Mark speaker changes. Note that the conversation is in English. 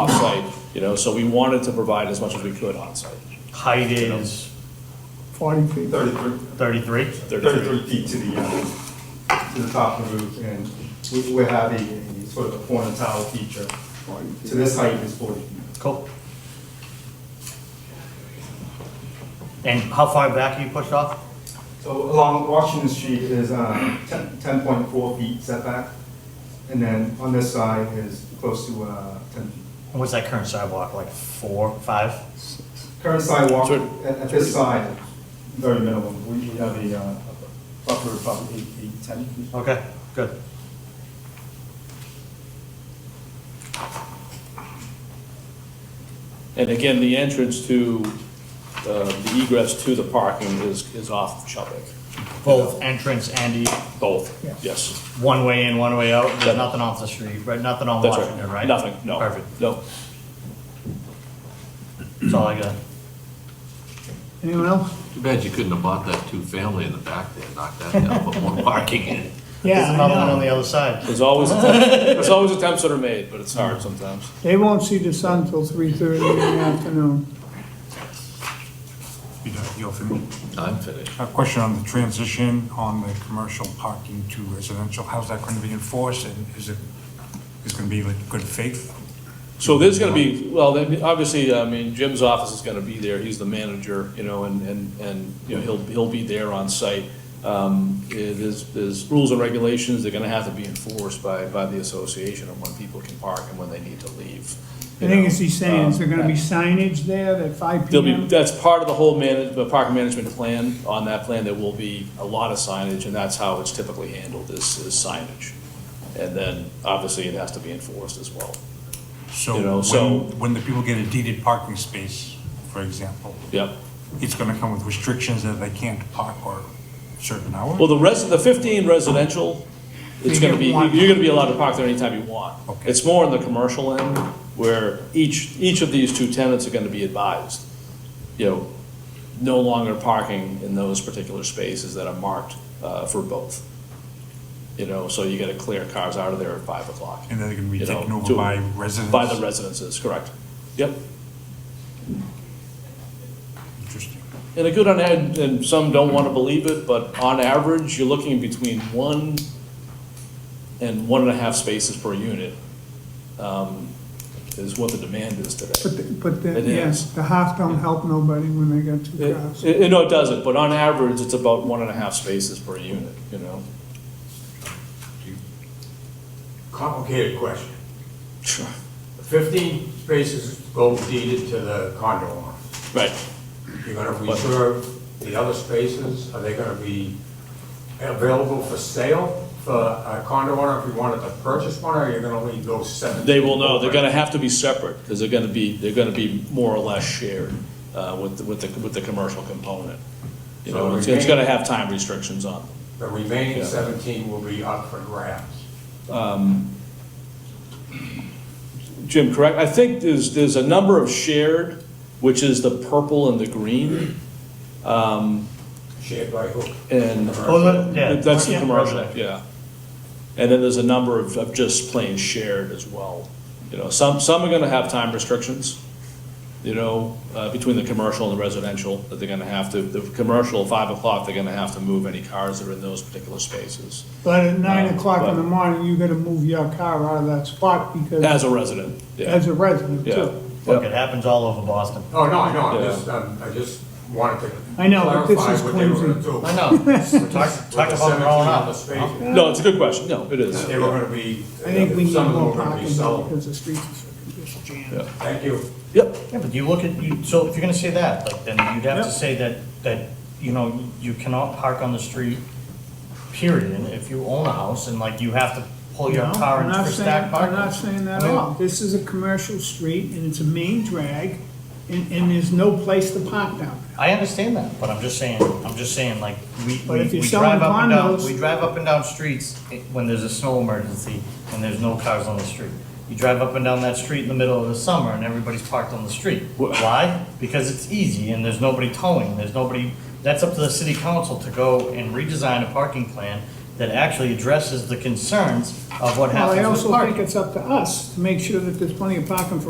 Speaker 1: off-site, you know, so we wanted to provide as much as we could on-site.
Speaker 2: Height is
Speaker 3: Forty feet.
Speaker 4: 33
Speaker 2: thirty-three?
Speaker 4: 33 feet to the, uh, to the top of the roof, and we- we're having a sort of a corner tile feature. So this height is 40 feet.
Speaker 2: Cool. And how far back are you pushed off?
Speaker 4: So along Washington Street is um, 10 10.4 feet setback, and then on this side is close to uh, 10 feet.
Speaker 2: And What's that current sidewalk, like four, five?
Speaker 4: Current sidewalk
Speaker 1: So-
Speaker 4: at at this side, very minimum, we we have a uh, buffer of probably 8 feet, 10 feet.
Speaker 2: Okay, good.
Speaker 1: And again, the entrance to, uh, the egress to the parking is, is off Chubbuck,
Speaker 2: Both entrance and e-
Speaker 1: both,
Speaker 3: Yeah.
Speaker 1: yes.
Speaker 2: one way in, one way out,
Speaker 1: Yeah.
Speaker 2: there's nothing off the street, right, nothing on
Speaker 1: That's
Speaker 2: Washington, right?
Speaker 1: Nothing, no.
Speaker 2: Perfect,
Speaker 1: No.
Speaker 2: that's all I got.
Speaker 3: Anyone else?
Speaker 5: Too bad you couldn't have bought that two-family in the back there, knocked that down, put more parking in.
Speaker 2: There's
Speaker 3: Yeah, I
Speaker 2: another one on
Speaker 3: know.
Speaker 2: the other side.
Speaker 1: There's always, attempt- there's always attempts that are made, but it's hard sometimes.
Speaker 3: They won't see the sun till three thirty in the afternoon.
Speaker 6: You know, you're familiar.
Speaker 5: I'm finished.
Speaker 6: A question on the transition on the commercial parking to residential, how's that going to be enforced, and is it, is it going to be like good faith?
Speaker 1: So there's gonna be, well, then, obviously, I mean, Jim's office is gonna be there, he's the manager, you know, and, and, and, you know, he'll, he'll be there on site. Um, eh, there's, there's rules and regulations, they're gonna have to be enforced by, by the association of when people can park and when they need to leave.
Speaker 3: I
Speaker 1: you
Speaker 3: think
Speaker 1: know.
Speaker 3: as he's saying, is there gonna be
Speaker 1: Um,
Speaker 3: signage there at five
Speaker 1: There'll be,
Speaker 3: PM?
Speaker 1: that's part of the whole manage, the park management plan, on that plan, there will be a lot of signage, and that's how it's typically handled, is, is signage. And then, obviously, it has to be enforced as well, You know,
Speaker 6: So
Speaker 1: so-
Speaker 6: when, when the people get a deeded parking space, for example,
Speaker 1: yep.
Speaker 6: it's going to come with restrictions that they can't park or certain
Speaker 1: Well,
Speaker 6: hours?
Speaker 1: the rest, the fifteen residential, it's
Speaker 3: You
Speaker 1: gonna
Speaker 3: get
Speaker 1: be,
Speaker 3: one.
Speaker 1: you're gonna be allowed to park there anytime you want.
Speaker 6: Okay.
Speaker 1: It's more on the commercial end, where each, each of these two tenants are gonna be advised, you know, no longer parking in those particular spaces that are marked, uh, for both. You know, so you gotta clear cars out of there at five o'clock.
Speaker 6: And they're going to be
Speaker 1: you know,
Speaker 6: taken over
Speaker 1: to-
Speaker 6: by residents?
Speaker 1: By the residences, correct. Yep.
Speaker 6: Interesting.
Speaker 1: And a good on, ad- and some don't want to believe it, but on average, you're looking between one and one and a half spaces per unit um, is what the demand is
Speaker 3: But,
Speaker 1: today.
Speaker 3: the- but, the-
Speaker 1: It
Speaker 3: yes,
Speaker 1: is.
Speaker 3: the half don't help nobody when they got two cars.
Speaker 1: It- it- No, it doesn't, but on average, it's about one and a half spaces per unit, you know?
Speaker 7: Complicated question.
Speaker 1: Sure.
Speaker 7: Fifteen spaces go deeded to the condo owner.
Speaker 1: Right.
Speaker 7: You're gonna reserve the other spaces, are they gonna be available for sale for a condo owner if you wanted to purchase one, or are you gonna leave those seventeen?
Speaker 1: They will know, they're
Speaker 7: open?
Speaker 1: gonna have to be separate, because they're gonna be, they're gonna be more or less shared uh, with, the- with the, with the commercial component. You
Speaker 7: So
Speaker 1: know, it's
Speaker 7: remain-
Speaker 1: it's gonna have time restrictions on them.
Speaker 7: The remaining
Speaker 1: Yeah.
Speaker 7: seventeen will be up for grabs.
Speaker 1: Jim, correct? I think there's, there's a number of shared, which is the purple and the green,
Speaker 7: Shared by who?
Speaker 1: and.
Speaker 2: Oh, that- yeah.
Speaker 1: That's the
Speaker 2: Yeah.
Speaker 1: commercial, yeah. And then there's a number of, of just plain shared as well. You know, some, some are gonna have time restrictions, you know, uh, between the commercial and the residential, that they're gonna have to, the commercial, five o'clock, they're gonna have to move any cars that are in those particular spaces,
Speaker 3: But at nine
Speaker 1: Um,
Speaker 3: o'clock
Speaker 1: but-
Speaker 3: in the morning, you gotta move your car out of that spot because,
Speaker 1: as a resident, yeah.
Speaker 3: as a resident
Speaker 1: Yeah.
Speaker 3: too.
Speaker 2: Look, it happens all over Boston.
Speaker 7: Oh, no, I know, I
Speaker 1: Yeah.
Speaker 7: just, um, I just wanted to
Speaker 3: I know, but this is
Speaker 7: clarify what they were
Speaker 3: clumsy.
Speaker 7: gonna do.
Speaker 2: I know. Talk, talk about growing up.
Speaker 7: With the 17 other spaces,
Speaker 1: No, it's a good question, no, it is.
Speaker 7: they were gonna be, uh,
Speaker 3: I think we need
Speaker 7: some of them
Speaker 3: more
Speaker 7: were gonna
Speaker 3: parking
Speaker 7: be
Speaker 3: though,
Speaker 7: sold.
Speaker 3: because the streets are just jammed.
Speaker 1: Yeah.
Speaker 7: Thank you.
Speaker 1: Yep,
Speaker 2: Yeah, but you look at, you, so if you're gonna say that, like, then you'd have to say that, that, you know, you cannot park on the street, period, and if you own a house, and like, you have to pull your
Speaker 3: No,
Speaker 2: car
Speaker 3: I'm
Speaker 2: in
Speaker 3: not
Speaker 2: for
Speaker 3: saying-
Speaker 2: stack parking.
Speaker 3: I'm not saying that
Speaker 2: I
Speaker 3: at
Speaker 2: mean-
Speaker 3: all. This is a commercial street and it's a main drag and, and there's no place to park down there.
Speaker 2: I understand that, but I'm just saying, I'm just saying, like, we,
Speaker 3: But
Speaker 2: we
Speaker 3: if you're
Speaker 2: we
Speaker 3: selling
Speaker 2: drive up and down,
Speaker 3: condos-
Speaker 2: we drive up and down streets i- when there's a snow emergency and there's no cars on the street. You drive up and down that street in the middle of the summer and everybody's parked on the street. Why? Because it's easy and there's nobody towing, there's nobody, that's up to the city council to go and redesign a parking plan that actually addresses the concerns of what
Speaker 3: Well,
Speaker 2: happens
Speaker 3: I
Speaker 2: with
Speaker 3: also think
Speaker 2: parking.
Speaker 3: it's up to us to make sure that there's plenty of parking for